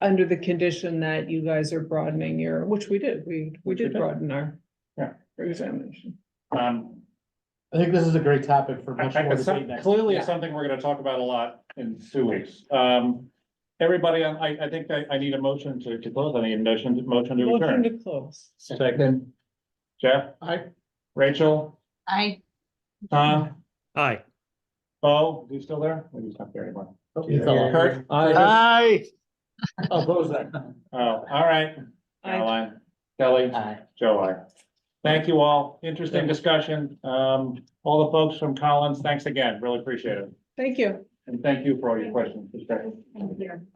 under the condition that you guys are broadening your, which we did, we, we did broaden our. Yeah. Examination. Um, I think this is a great topic for I- much I- more it's debate some- next. Clearly, Yeah. it's something we're gonna talk about a lot in two weeks. Um, everybody, um, I, I think I, I need a motion to, to close, I need a motion, motion to Motion adjourn. to close. Second. Jeff? Aye. Rachel? I, Tom? Aye. Bo, you still there? Maybe he's not there anymore. You fell off. Kurt? Aye. Oppose that. Oh, all right. I, Caroline, Kelly, Aye. Joe, I. Thank you all. Interesting discussion. Um, all the folks from Collins, thanks again. Really appreciate it. thank you. And thank you for all your questions. I'm here.